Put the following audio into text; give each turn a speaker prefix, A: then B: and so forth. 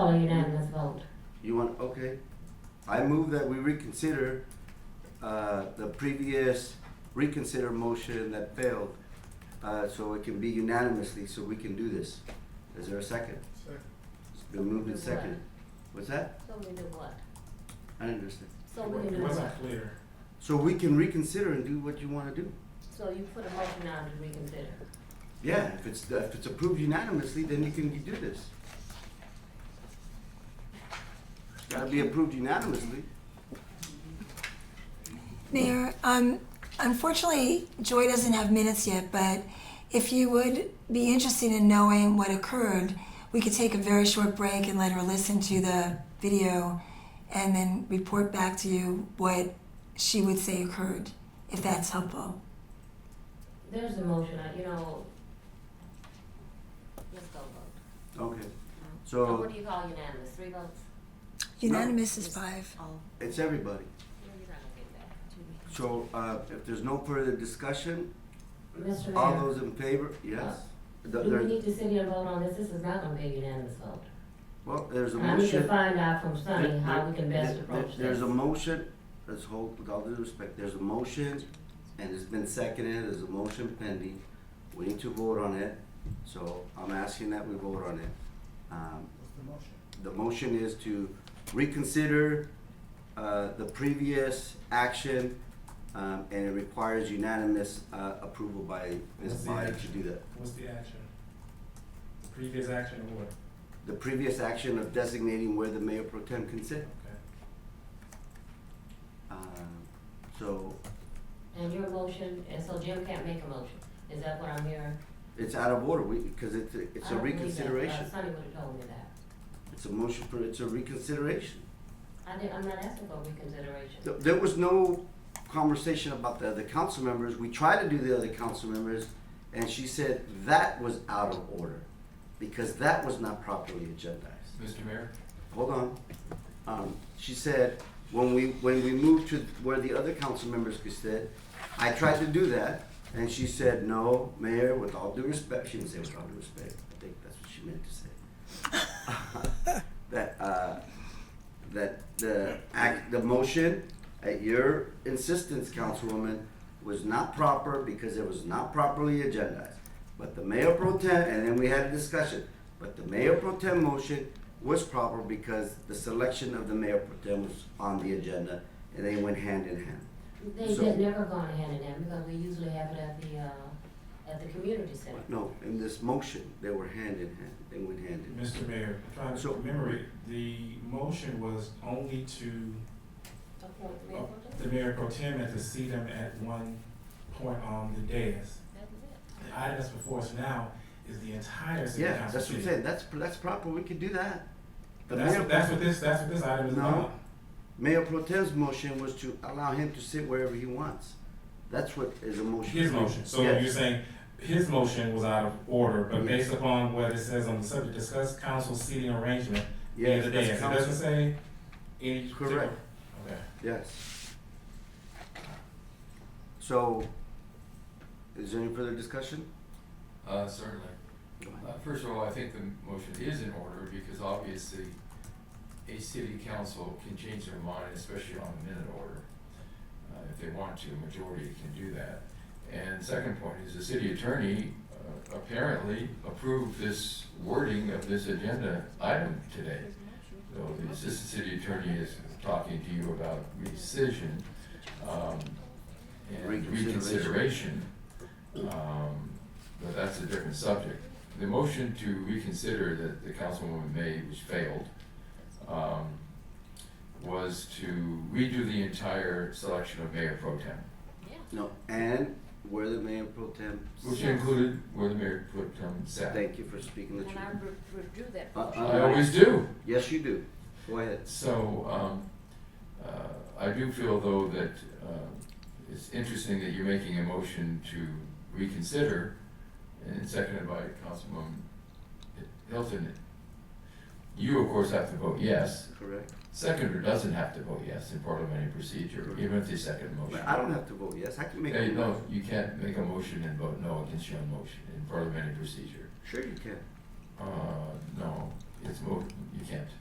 A: Oh,
B: You want, okay. I move that we reconsider, uh, the previous reconsider motion that failed, uh, so it can be unanimously, so we can do this. Is there a second?
C: Second.
B: It's been moved and seconded. What's that?
A: So we do what?
B: I didn't understand.
A: So we
C: It
A: do what?
C: wasn't clear.
B: So we can reconsider and do what you wanna do.
A: So you put a motion on to reconsider.
B: Yeah, if it's, if it's approved unanimously, then you can do this. It's gotta be approved unanimously.
D: Mayor, um, unfortunately, Joy doesn't have minutes yet, but if you would be interested in knowing what occurred, we could take a very short break and let her listen to the video and then report back to you what she would say occurred, if that's helpful.
A: There's a motion, I- you know. Let's go vote.
B: Okay,
A: So
B: so
A: what do you call unanimous, three votes?
D: Unanimous is five.
B: it's everybody.
A: No, You're not gonna
B: So, uh, if there's no further discussion,
A: get that. Mr.
B: all
A: Mayor,
B: those in favor, yes? Th-
A: do Uh, we
B: there-
A: need to sit here and vote on this? This is not gonna be a unanimous vote.
B: Well, there's a
A: I need to
B: motion.
A: find out from Sunny
B: There-
A: how we can best
B: there-
A: approach
B: There's
A: this.
B: a motion, let's hold, with all due respect, there's a motion, and it's been seconded, there's a motion pending. We need to vote on it, so I'm asking that we vote on it. Um,
C: What's the motion?
B: The motion is to reconsider uh, the previous action, um, and it requires unanimous uh, approval by this
C: What's the
B: body to
C: action?
B: do that.
C: What's the action? The previous action or what?
B: The previous action of designating where the mayor pro tem can sit.
C: Okay.
B: Um, So
A: And your motion, and so Jim can't make a motion. Is that what I'm hearing?
B: it's out of order, we, because it's, a- it's
A: I
B: a
A: don't believe that. Uh,
B: reconsideration.
A: Sunny would've told me that.
B: It's a motion for, it's a reconsideration.
A: I did, I'm not asking for reconsideration.
B: Th- There was no conversation about the other council members. We tried to do the other council members, and she said that was out of order because that was not properly agendized.
E: Mr. Mayor,
B: Hold on. Um, she said, when we, when we moved to where the other council members could sit, I tried to do that, and she said, no, Mayor, with all due respect, she didn't say with all due respect, I think that's what she meant to say that uh, that the act, the motion at your insistence, Councilwoman, was not proper because it was not properly agendized. But the mayor pro tem, and then we had a discussion, but the mayor pro tem motion was proper because the selection of the mayor pro tem was on the agenda and they went hand in hand.
A: They,
B: So-
A: they've never gone hand in hand because we usually have it at the, uh, at the community center.
B: No, in this motion, they were hand in hand, they went hand in hand.
C: Mr. Mayor, I'm trying to
B: So-
C: remember, it. the motion was only to
A: Appoint
B: Oh.
A: the mayor pro
C: uh,
A: tem.
C: the mayor pro tem and to seat him at one point on the dais.
A: That was it.
C: The item that's before us now is the entire city council.
B: Yeah, that's what I'm
C: seat.
B: saying, that's, that's proper, we could do that. The
C: That's,
B: mayor-
C: that's what this, that's what this item is
B: No.
C: about.
B: Mayor Pro Tem's motion was to allow him to sit wherever he wants. That's what is a motion.
C: His motion, so
B: Yes.
C: you're saying his motion was out of order, but
B: Yes.
C: based upon what it says on the subject, discuss council seating arrangement. the
B: Yes,
C: other
B: that's
C: day. It
B: council.
C: doesn't say any. particular-
B: Correct.
C: Okay.
B: Yes. So, is there any further discussion?
E: uh, certainly.
B: Go ahead.
E: Uh, first of all, I think the motion is in order because obviously a city council can change their mind, especially on a minute order. Uh, if they want to, majority can do that. And second point is the city attorney uh, apparently approved this wording of this agenda item today. So the assistant city attorney is talking to you about rescission, um, and
B: Reconsideration.
E: reconsideration. Um, but that's a different subject. The motion to reconsider that the councilwoman made, which failed, um, was to redo the entire selection of mayor pro tem,
B: No, and where the Mayor Pro Tem
E: which
B: sits.
A: Yes.
E: included where the mayor pro tem sat.
B: Thank you for speaking the truth.
A: And I re- withdrew that
B: Uh,
A: motion.
E: I always do.
B: Yes, you do. Go ahead.
E: So, um, uh, I do feel though that, uh, it's interesting that you're making a motion to reconsider and seconded by Councilwoman Hilton. You, of course, have to vote yes.
B: Correct.
E: Seconder doesn't have to vote yes in parliamentary procedure, even if they second the motion.
B: But I don't have to vote yes. I can make. a
E: Oh, Hey, no,
B: motion.
E: you can't make a motion and vote no against your own motion in parliamentary procedure.
B: Sure you can.
E: Uh, no, it's mo, you can't.